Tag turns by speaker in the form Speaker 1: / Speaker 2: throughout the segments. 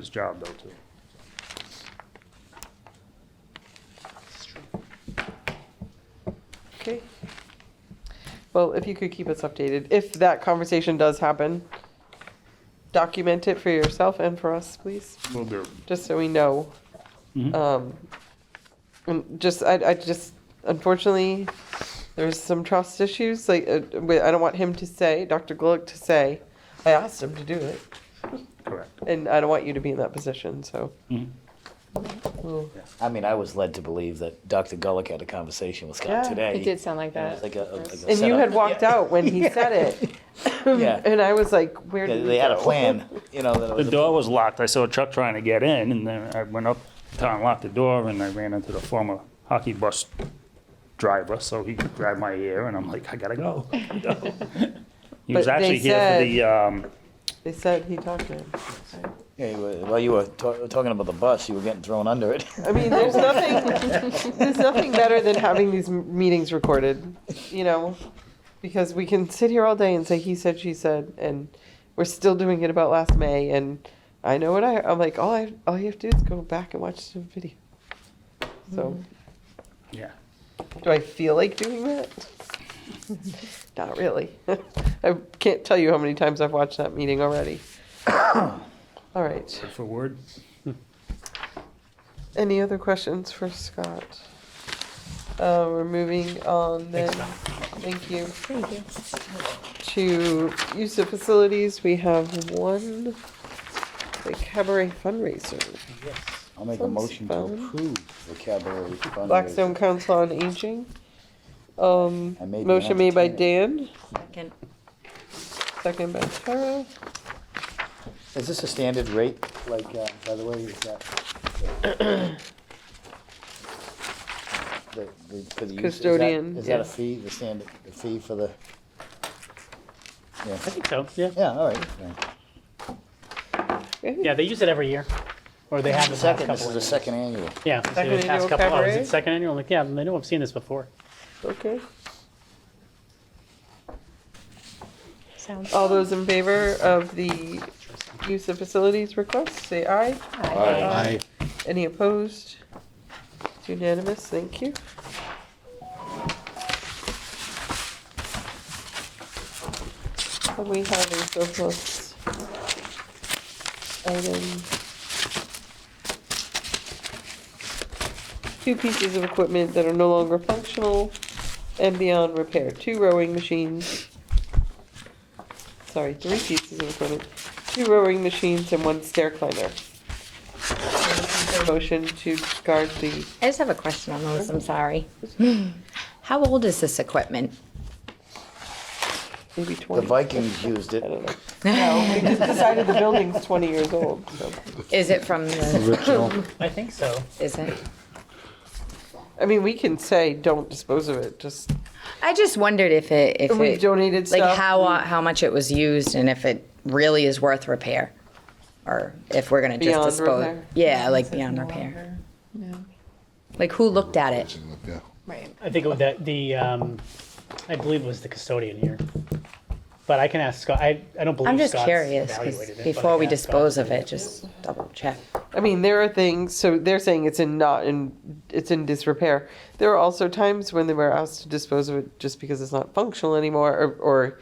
Speaker 1: his job though, too.
Speaker 2: Okay. Well, if you could keep us updated, if that conversation does happen, document it for yourself and for us, please,
Speaker 1: Will do.
Speaker 2: just so we know.
Speaker 3: Mm-hmm.
Speaker 1: Mhm.
Speaker 2: Um, and just, I, I just, unfortunately, there's some trust issues, like, uh, we- I don't want him to say, Dr. Gluck to say, I asked him to do it,
Speaker 1: Correct.
Speaker 2: and I don't want you to be in that position, so. We'll-
Speaker 3: I mean, I was led to believe that Dr. Gullick had a conversation with Scott
Speaker 2: Yeah, he
Speaker 3: today.
Speaker 4: It did sound like
Speaker 3: And it was like
Speaker 4: that.
Speaker 3: a- a-
Speaker 4: Yes.
Speaker 3: like a
Speaker 2: And you had
Speaker 3: setup.
Speaker 2: walked
Speaker 3: Yeah.
Speaker 2: out when he said it.
Speaker 3: Yeah.
Speaker 2: And I was like, where
Speaker 3: They
Speaker 2: did
Speaker 3: they
Speaker 2: we
Speaker 3: had a
Speaker 2: go?
Speaker 3: plan, you know, that it
Speaker 1: The
Speaker 3: was. a-
Speaker 1: door was locked. I saw a truck trying to get in, and then I went up to unlock the door, and I ran into the former hockey bus driver, so he grabbed my ear, and I'm like, I gotta go. I gotta go." He was
Speaker 2: But they
Speaker 1: actually here for the, um,
Speaker 2: They said he talked to him.
Speaker 3: Yeah, you were- Well, you were ta- talking about the bus, you were getting thrown under it.
Speaker 2: I mean, there's nothing, there's nothing better than having these m- meetings recorded, you know? Because we can sit here all day and say, he said, she said, and we're still doing it about last May, and I know what I, I'm like, all I, all you have to do is go back and watch the video. So,
Speaker 1: yeah.
Speaker 2: do I feel like doing that? Not really. I can't tell you how many times I've watched that meeting already. All right.
Speaker 1: Word for word.
Speaker 2: Any other questions for Scott? Uh, we're moving on then, thank you,
Speaker 4: Thank you.
Speaker 2: to use of facilities. We have one, the cabaret fundraiser.
Speaker 3: I'll make a
Speaker 2: Sounds
Speaker 3: motion to
Speaker 2: fun.
Speaker 3: approve the cabaret fundraiser.
Speaker 2: Blackstone Council on Aging. Um,
Speaker 3: I may be
Speaker 2: motion made by
Speaker 3: entertaining.
Speaker 2: Dan, second by Tara.
Speaker 3: Is this a standard rate, like, uh, by the way, is that? The- the- for the use- is that-
Speaker 2: Custodian,
Speaker 3: Is that a
Speaker 2: yes.
Speaker 3: fee, the standard, the fee for the? Yeah,
Speaker 5: I think so, yeah.
Speaker 3: yeah, all right. yeah.
Speaker 5: Yeah, they use it every year, or they have the past
Speaker 3: Second, this
Speaker 5: couple
Speaker 3: is
Speaker 5: of
Speaker 3: the
Speaker 5: years.
Speaker 3: second annual.
Speaker 5: Yeah, it's
Speaker 2: Second
Speaker 5: the past
Speaker 2: annual
Speaker 5: couple, oh, is
Speaker 2: cabaret?
Speaker 5: it second annual? I'm Like, yeah, I know I've seen this before.
Speaker 2: Okay,
Speaker 4: Sounds.
Speaker 2: all those in favor of the use of facilities request, say aye.
Speaker 6: Aye.
Speaker 2: Any opposed? It's unanimous, thank you. And we have a surplus item. Two pieces of equipment that are no longer functional and beyond repair, two rowing machines. Sorry, three pieces of equipment, two rowing machines and one stair climber. Motion to discard the
Speaker 7: I just have a question on those, I'm sorry. How old is this equipment?
Speaker 2: maybe
Speaker 3: The
Speaker 2: twenty.
Speaker 3: Vikings used it.
Speaker 2: I don't know. No, we just decided the building's twenty years old, so.
Speaker 7: Is it from the,
Speaker 5: I think so.
Speaker 7: is it?
Speaker 2: I mean, we can say, don't dispose of it, just,
Speaker 7: I just wondered if it, if
Speaker 2: We've
Speaker 7: it-
Speaker 2: donated
Speaker 7: Like
Speaker 2: stuff,
Speaker 7: how, uh,
Speaker 2: we-
Speaker 7: how much it was used and if it really is worth repair? Or if we're gonna just
Speaker 2: Beyond
Speaker 7: dispose?
Speaker 2: repair?
Speaker 7: Yeah, like beyond repair. Like who looked at it?
Speaker 6: Yeah.
Speaker 4: Right.
Speaker 5: I think it was that the, um, I believe it was the custodian here. But I can ask Scott, I, I don't
Speaker 7: I'm
Speaker 5: believe
Speaker 7: just
Speaker 5: Scott's
Speaker 7: curious, 'cause
Speaker 5: evaluated it. but I
Speaker 7: before
Speaker 5: can
Speaker 7: we
Speaker 5: ask Scott.
Speaker 7: dispose of it, just double check.
Speaker 2: I mean, there are things, so they're saying it's in not in, it's in disrepair. There are also times when they were asked to dispose of it just because it's not functional anymore, or, or,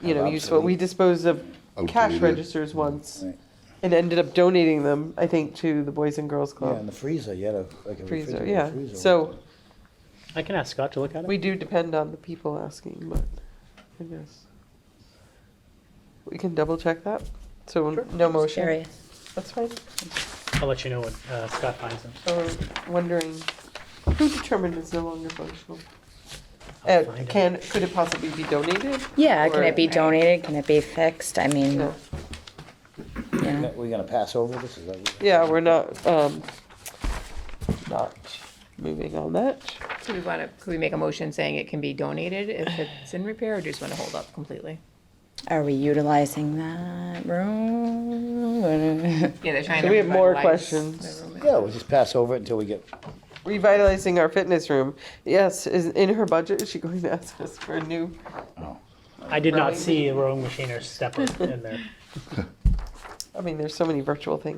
Speaker 2: you know, useful. We disposed of cash
Speaker 6: Outdated.
Speaker 2: registers once
Speaker 3: Right.
Speaker 2: and ended up donating them, I think, to the Boys and Girls
Speaker 3: Yeah, in
Speaker 2: Club
Speaker 3: the freezer, you had a, like a
Speaker 2: freezer,
Speaker 3: refrigerator
Speaker 2: yeah.
Speaker 3: freezer.
Speaker 2: So
Speaker 5: I can ask Scott to look at it.
Speaker 2: we do depend on the people asking, but I guess. We can double check that, so no motion.
Speaker 7: Curious.
Speaker 2: That's fine.
Speaker 5: I'll let you know when uh, Scott finds it.
Speaker 2: or wondering who determined it's no longer functional? Uh,
Speaker 5: find out.
Speaker 2: can, could it possibly be donated?
Speaker 7: Yeah, can
Speaker 2: Or-
Speaker 7: it be donated? Can it be fixed? I mean,
Speaker 2: No.
Speaker 7: yeah.
Speaker 3: We're gonna pass over this, is that what?
Speaker 2: Yeah, we're not, um, not moving on that.
Speaker 4: Do we want to, could we make a motion saying it can be donated if it's in repair, or do you just want to hold up completely?
Speaker 7: Are we utilizing that room?
Speaker 4: Yeah, they're trying
Speaker 2: So
Speaker 4: to.
Speaker 2: we have more
Speaker 4: revitalize
Speaker 2: questions.
Speaker 4: the room.
Speaker 3: Yeah, we'll just pass over it until we get,
Speaker 2: Revitalizing our fitness room. Yes, is, in her budget, is she going to ask us for a new?
Speaker 3: oh,
Speaker 5: I did not
Speaker 2: Rowing
Speaker 5: see a rowing machine or stepper in there.
Speaker 2: I mean, there's so many virtual things.